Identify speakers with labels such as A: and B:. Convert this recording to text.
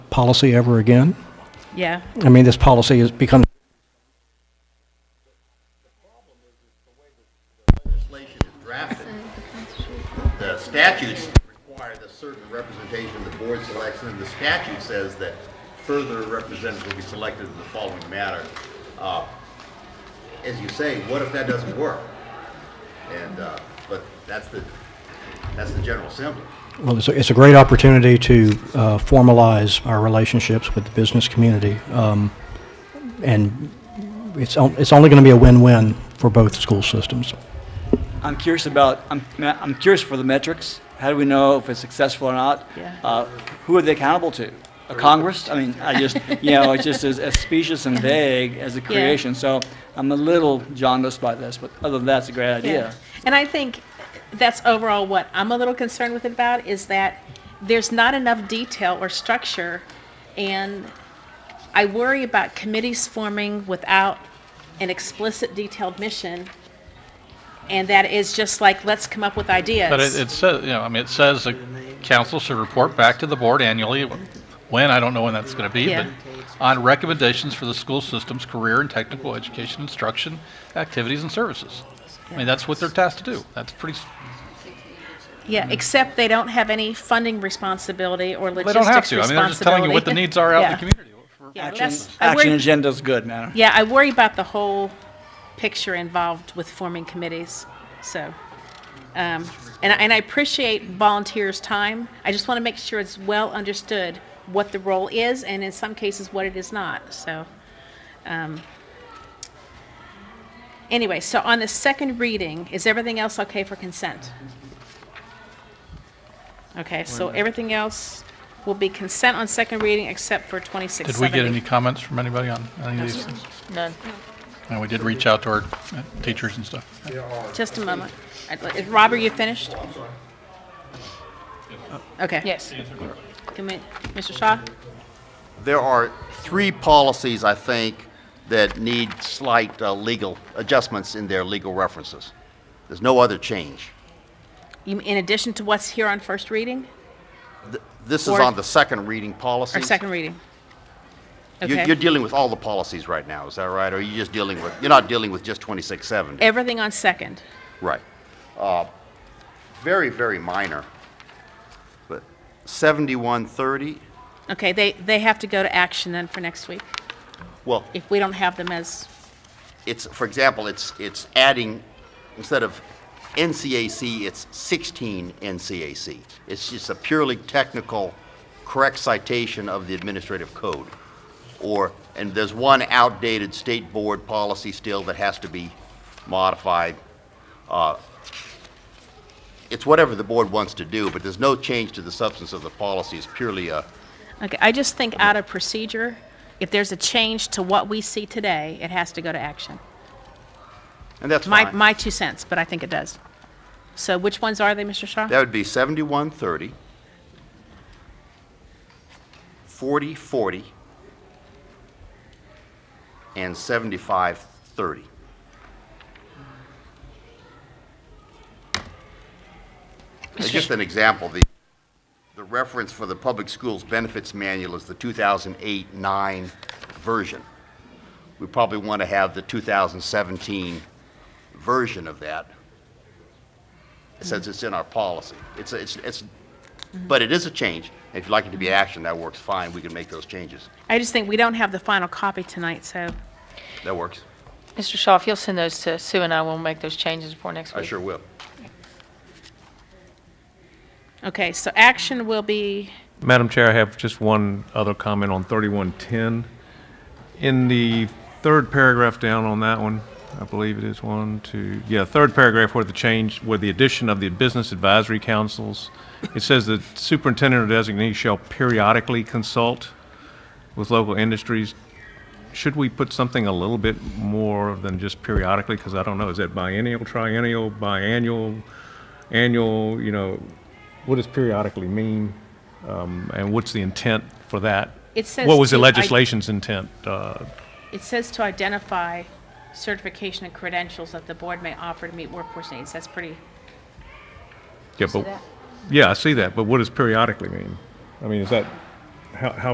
A: policy ever again.
B: Yeah.
A: I mean, this policy has become,
C: legislation is drafted, the statutes require the certain representation the board selects, and the statute says that further representatives will be selected in the following matter. Uh, As you say, what if that doesn't work? And, uh, but that's the, that's the general assembly.
A: well, it's a, it's a great opportunity to uh, formalize our relationships with the business community. um, And it's, on- it's only going to be a win-win for both school systems.
D: I'm curious about, I'm, I'm curious for the metrics. How do we know if it's successful or not?
B: Yeah.
D: Uh, who are they accountable to? A Congress? I mean, I just, you know, it's just as, as specious and vague as the creation. So I'm a little jaundiced by this, but other than that, it's a great idea.
B: And I think that's overall what I'm a little concerned with it about is that there's not enough detail or structure. And I worry about committees forming without an explicit detailed mission. And that is just like, let's come up with ideas.
E: But it, it says, you know, I mean, it says the council should report back to the board annually, when, I don't know when that's gonna be,
B: Yeah.
E: but on recommendations for the school system's career and technical education instruction, activities and services. I mean, that's what they're tasked to do. That's pretty, s-
B: Yeah, except they don't have any funding responsibility or
E: they don't have
B: logistics responsibility.
E: to. I mean, they're just telling you what the needs are out in
B: Yeah.
E: the community.
B: Yeah,
D: Action,
B: that's- I
D: action
B: worry-
D: agenda's good, man.
B: Yeah, I worry about the whole picture involved with forming committees, so. um, And, I- and I appreciate volunteers' time. I just want to make sure it's well understood what the role is and in some cases what it is not, so. um, Anyway, so on the second reading, is everything else okay for consent? Okay, so everything else will be consent on second reading except for
E: Did we
B: 2670.
E: get any comments from anybody on any of these things?
B: None.
E: And we did reach out to our uh, teachers and stuff.
B: Just a moment. I'd li- Rob, are you finished? Okay. Yes. Mr. Shaw?
C: There are three policies, I think, that need slight uh, legal adjustments in their legal references. There's no other change.
B: You- In addition to what's here on first reading
C: This is
B: Or-
C: on the second reading policy.
B: or second reading?
C: You're, you're
B: Okay.
C: dealing with all the policies right now, is that right? Or are you just dealing with, you're not dealing with just 2670?
B: Everything on second.
C: Right. Uh, Very, very minor. But 7130,
B: Okay, they, they have to go to action then for next week
C: well,
B: if we don't have them as,
C: it's, for example, it's, it's adding, instead of NCAC, it's 16 NCAC. It's just a purely technical, correct citation of the administrative code. Or, and there's one outdated state board policy still that has to be modified. Uh, It's whatever the board wants to do, but there's no change to the substance of the policy. It's purely a,
B: okay, I just think out of procedure, if there's a change to what we see today, it has to go to action.
C: and that's
B: My,
C: fine.
B: my two cents, but I think it does. So which ones are they, Mr. Shaw?
C: That would be 7130, 4040, and 7530. As Just an example, the, the reference for the Public Schools Benefits Manual is the 2008-9 version. We probably want to have the 2017 version of that since it's in our policy. It's, it's, it's, but it is a change. If you'd like it to be action, that works fine. We can make those changes.
B: I just think we don't have the final copy tonight, so,
C: That works.
F: Mr. Shaw, if you'll send those to Sue and I, we'll make those changes before next
C: I
F: week.
C: sure will.
B: okay, so action will be,
G: Madam Chair, I have just one other comment on 3110. In the third paragraph down on that one, I believe it is one, two, yeah, third paragraph where the change, where the addition of the business advisory councils, it says the superintendent or designee shall periodically consult with local industries. Should we put something a little bit more than just periodically? Because I don't know, is that biennial, triennial, biannual, annual, you know, what does periodically mean? Um, And what's the intent for that?
B: It says
G: What was the
B: to- I-
G: legislation's intent? Uh,
B: it says to identify certification and credentials that the board may offer to meet workforce needs. That's pretty,
G: Yeah, but, yeah, I see that, but what does periodically mean? I mean, is that, how, how